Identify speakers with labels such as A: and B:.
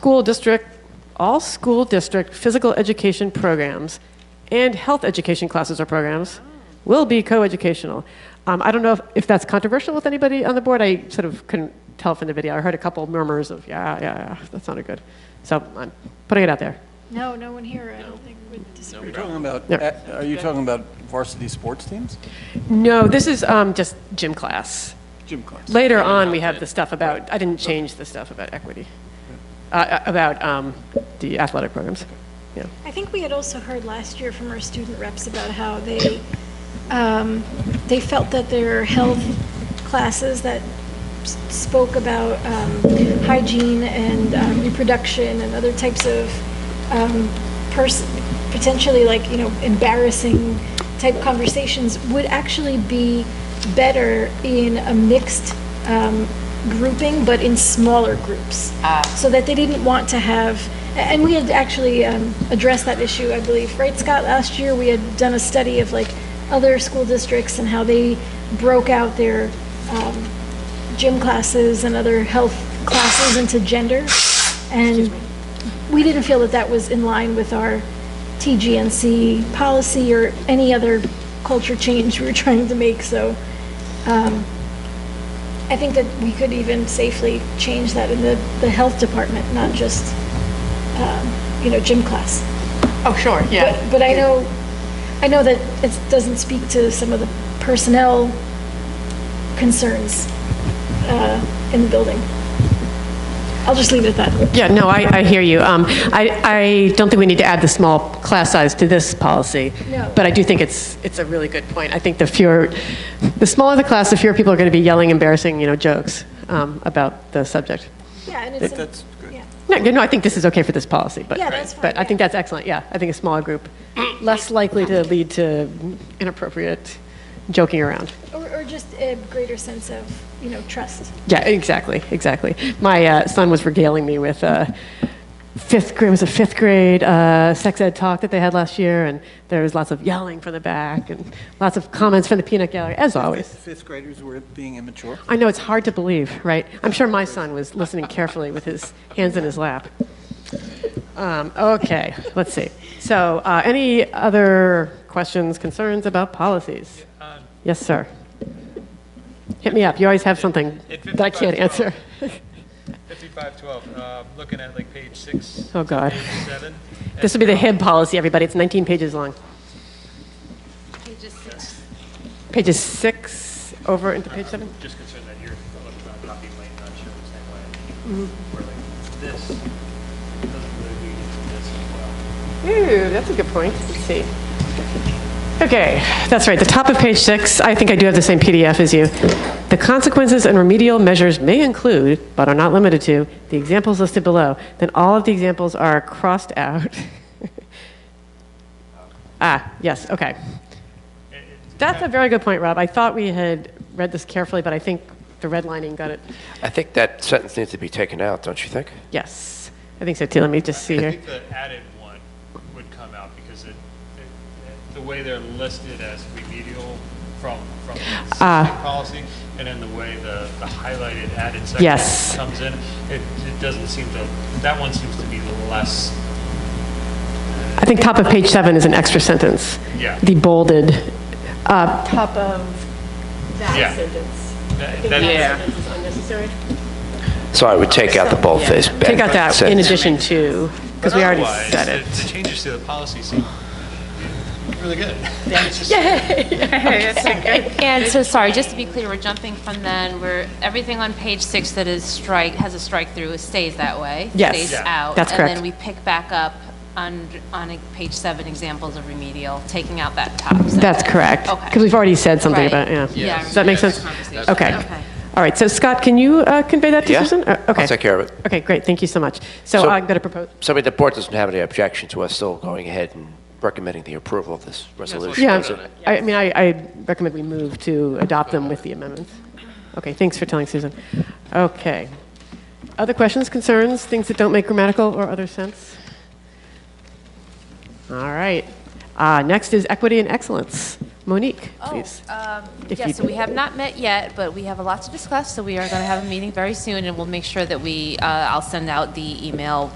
A: school district, all school district physical education programs and health education classes or programs will be co-educational. Um, I don't know if, if that's controversial with anybody on the board. I sort of couldn't tell from the video. I heard a couple murmurs of, yeah, yeah, yeah, that sounded good. So I'm putting it out there.
B: No, no one here, I don't think would disagree.
C: You're talking about,
A: Yeah.
C: are you talking about varsity sports teams?
A: No, this is um, just gym class.
C: Gym class.
A: Later on, we have the stuff about, I didn't change the stuff about equity, uh, uh, about um, the athletic programs. Yeah.
B: I think we had also heard last year from our student reps about how they, um, they felt that their health classes that s- spoke about um, hygiene and um, reproduction and other types of um, pers- potentially like, you know, embarrassing type conversations would actually be better in a mixed um, grouping, but in smaller groups. So that they didn't want to have, a- and we had actually um, addressed that issue, I believe, right, Scott? Last year, we had done a study of like other school districts and how they broke out their um, gym classes and other health classes into gender. And we didn't feel that that was in line with our TGNC policy or any other culture change we were trying to make, so um, I think that we could even safely change that in the, the health department, not just, um, you know, gym class.
D: Oh, sure, yeah.
B: But- But I know, I know that it doesn't speak to some of the personnel concerns uh, in the building. I'll just leave it at that.
A: Yeah, no, I, I hear you. Um, I, I don't think we need to add the small class size to this policy.
B: No.
A: But I do think it's, it's a really good point. I think the fewer, the smaller the class, the fewer people are going to be yelling embarrassing, you know, jokes um, about the subject.
B: Yeah, and it's,
C: That's
B: in-
C: good.
B: yeah,
A: No, no, I think this is okay for this policy, but.
B: Yeah, that's fine,
A: But I
B: yeah.
A: think that's excellent, yeah. I think a small group, less likely to lead to inappropriate joking around.
B: or, or just a greater sense of, you know, trust.
A: Yeah, exactly, exactly. My uh, son was regaling me with uh, fifth grade. It was a fifth grade uh, sex ed talk that they had last year, and there was lots of yelling from the back and lots of comments from the peanut gallery, as always.
C: Fifth graders were being immature.
A: I know it's hard to believe, right? I'm sure my son was listening carefully with his hands in his lap. Um, okay, let's see. So, uh, any other questions, concerns about policies?
E: Um,
A: Yes, sir. Hit me up. You always have something
E: At
A: that I can't
E: 55,
A: answer.
E: 5512, uh, looking at like page six.
A: Oh, God.
E: to Page seven.
A: This would be the HIB policy, everybody. It's 19 pages long. Pages six over into page seven?
E: Just concerned that your electronic copy might not show the same
A: Mm-hmm.
E: way. Where like this doesn't really lead into this as well.
A: Ooh, that's a good point. Let's see. Okay, that's right. The top of page six, I think I do have the same PDF as you. The consequences and remedial measures may include, but are not limited to, the examples listed below. Then all of the examples are crossed out. ah, yes, okay. That's a very good point, Rob. I thought we had read this carefully, but I think the redlining got it.
F: I think that sentence needs to be taken out, don't you think?
A: Yes, I think so too. Let me just see
E: I
A: here.
E: think the added one would come out because it, it- the way they're listed as remedial from, from the existing
A: Ah.
E: policy, and then the way the, the highlighted added
A: Yes.
E: section comes in, it, it doesn't seem to, that one seems to be the less,
A: I think top of page seven is an extra sentence.
E: Yeah.
A: The bolded, uh,
D: Top of
E: Yeah.
D: that sentence.
E: that- that-
A: is unnecessary.
F: So I would take out the boldface.
A: Take out that in
F: sentence.
A: addition to, because we already
E: otherwise,
A: said
E: the- The
A: it.
E: changes to the policy seem really good.
G: And so, sorry, just to be clear, we're jumping from then, where everything on page six that is strike, has a strike through, stays that way?
A: Yes.
G: Stays
A: Yeah.
G: out?
A: That's
G: And
A: correct.
G: then we pick back up on, on page seven, examples of remedial, taking out that top sentence?
A: That's correct.
G: Okay.
A: Because we've already said something
G: Right.
A: about, yeah.
G: Yeah, I
A: Does that make
G: remember
A: sense?
G: that conversation.
A: Okay.
G: Okay.
A: All right, so Scott, can you uh, convey that to
F: Yeah.
A: Susan? Uh,
F: I'll
A: okay.
F: take care of it.
A: Okay, great, thank you so much. So
F: So-
A: I'm going to propose,
F: So I mean, the board doesn't have any objection to us still going ahead and recommending the approval of this resolution.
A: yeah,
F: is it?
A: I I mean, I I recommend we move to adopt them with the amendments. Okay, thanks for telling Susan. Okay. Other questions, concerns, things that don't make grammatical or other sense? All right. Uh, Next is equity and excellence. Monique, please.
G: Oh, um,
A: If you-
G: Yes, so we have not met yet, but we have a lot to discuss, so we are going to have a meeting very soon, and we'll make sure that we, uh, I'll send out the email